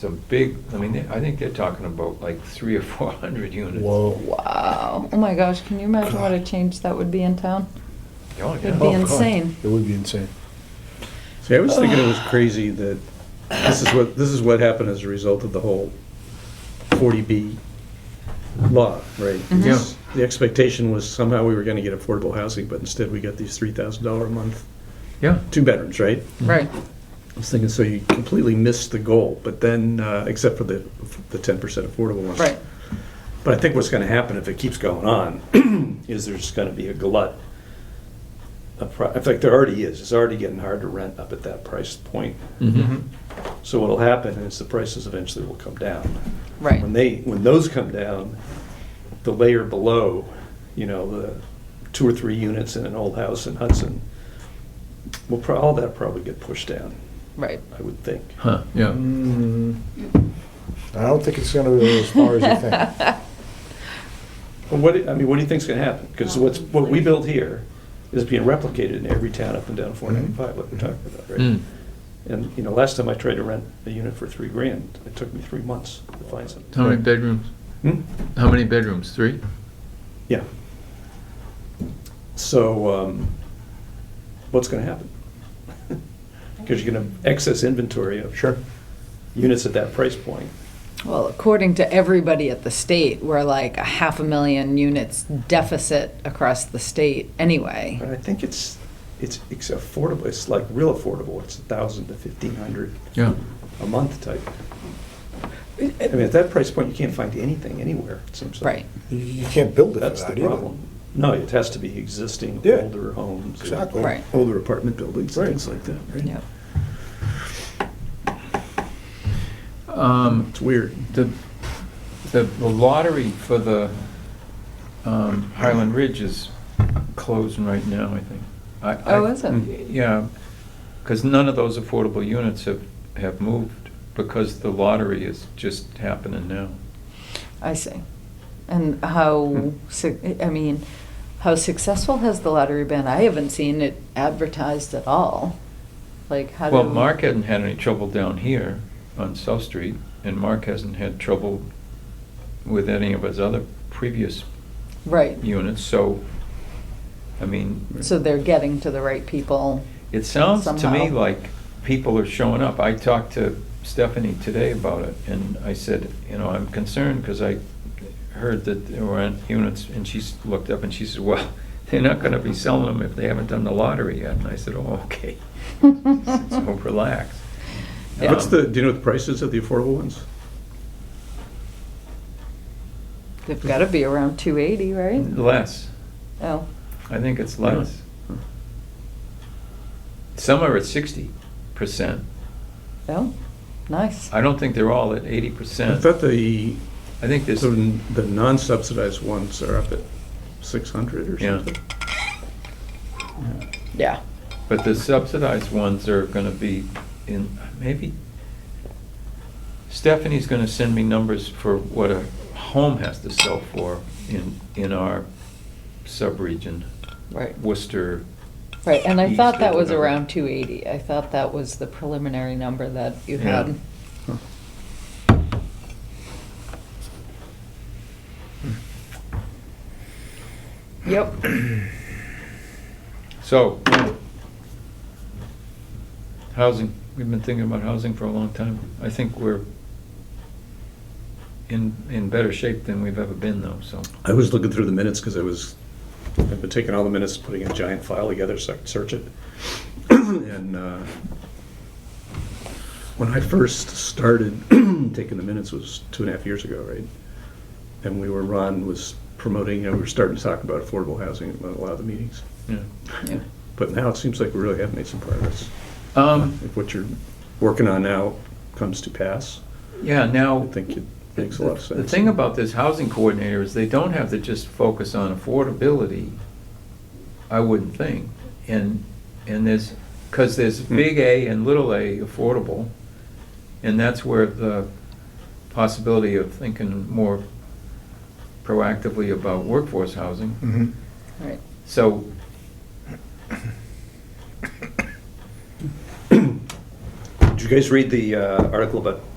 some big, I mean, they- I think they're talking about like three or four hundred units. Whoa. Wow. Oh my gosh, can you imagine what a change that would be in town? Oh, It'd yeah. be insane. It would be insane. See, I was thinking it was crazy that this is what, this is what happened as a result of the whole 40B law, right? Mhm. Yeah. The expectation was somehow we were going to get affordable housing, but instead we got these $3,000 a month, Yeah, two bedrooms, right? Right. I was thinking, so you completely missed the goal, but then, uh, except for the, the 10% affordable ones. Right. But I think what's going to happen if it keeps going on is there's going to be a glut. of pro- In fact, there already is. It's already getting hard to rent up at that price point. Mhm. So what'll happen is the prices eventually will come down. Right. When they, when those come down, the layer below, you know, the two or three units in an old house in Hudson, will pro, all that probably get pushed down, Right. I would think. huh, yeah. Mm, I don't think it's gonna be as far as you think. Well, what, do- I mean, what do you think's gonna happen? Because what's, what we build here is being replicated in every town up and down four ninety-five, like we're talking about, right? Mm. And, you know, last time I tried to rent a unit for three grand, it took me three months to find something. How many bedrooms? Hmm? How many bedrooms? Three? Yeah. So, um, what's gonna happen? Because you're gonna have excess inventory of. Sure. Units at that price point. Well, according to everybody at the state, we're like a half a million units deficit across the state But anyway. I think it's, it's, it's affordable, it's like real affordable, it's a thousand to fifteen hundred Yeah. a month type. I mean, at that price point, you can't find anything anywhere, it seems like. Right. You- You can't build it for That's the that either. problem. No, it has to be existing Yeah. older homes. or Exactly. Right. Older apartment buildings, Right. things like that, right? Yep. Um, It's weird. the, the the lottery for the, um, Highland Ridge is closing right now, I think. I- Oh, I- is it? Yeah, because none of those affordable units have, have moved, because the lottery is just happening now. I see. And how, Hmm. su- I mean, how successful has the lottery been? I haven't seen it advertised at all. Like, how do? Well, Mark hadn't had any trouble down here on South Street, and Mark hasn't had trouble with any of his other previous Right. units, so, I mean, So they're getting to the right people. it sounds to me Somehow. like people are showing up. I talked to Stephanie today about it, and I said, you know, I'm concerned because I heard that there were units, and she's looked up and she said, well, they're not gonna be selling them if they haven't done the lottery yet, and I said, oh, okay, so relax. Yeah. What's the, do you know what the price is of the affordable ones? They've got to be around 280, right? Less. Oh, I think it's less. Yeah. Some are at sixty percent. oh, nice. I don't think they're all at eighty I percent. thought the, I think there's, so the non-subsidized ones are up at six hundred or Yeah. something. Yeah. but the subsidized ones are gonna be in, maybe, Stephanie's gonna send me numbers for what a home has to sell for in, in our sub-region, Right. Worcester. Right, and I East thought or that was whatever. around 280. I thought that was the preliminary number that you Yeah. had. Huh. Yep. So, housing, we've been thinking about housing for a long time. I think we're in, in better shape than we've ever been though, so. I was looking through the minutes because I was, I've been taking all the minutes, putting a giant file together so I could search it. And uh, when I first started taking the minutes was two and a half years ago, right? And we were, Ron was promoting, and we were starting to talk about affordable housing at a lot of the meetings. yeah. Yeah. But now it seems like we really have made some progress. Um, If what you're working on now comes to pass, yeah, I now. think it makes a lot of sense. The thing about this housing coordinator is they don't have to just focus on affordability, I wouldn't think. And, and there's, because there's Hmm. big A and little a affordable, and that's where the possibility of thinking more proactively about workforce Mm-hmm. housing. Mhm. Right. So, Did you guys read the uh, article about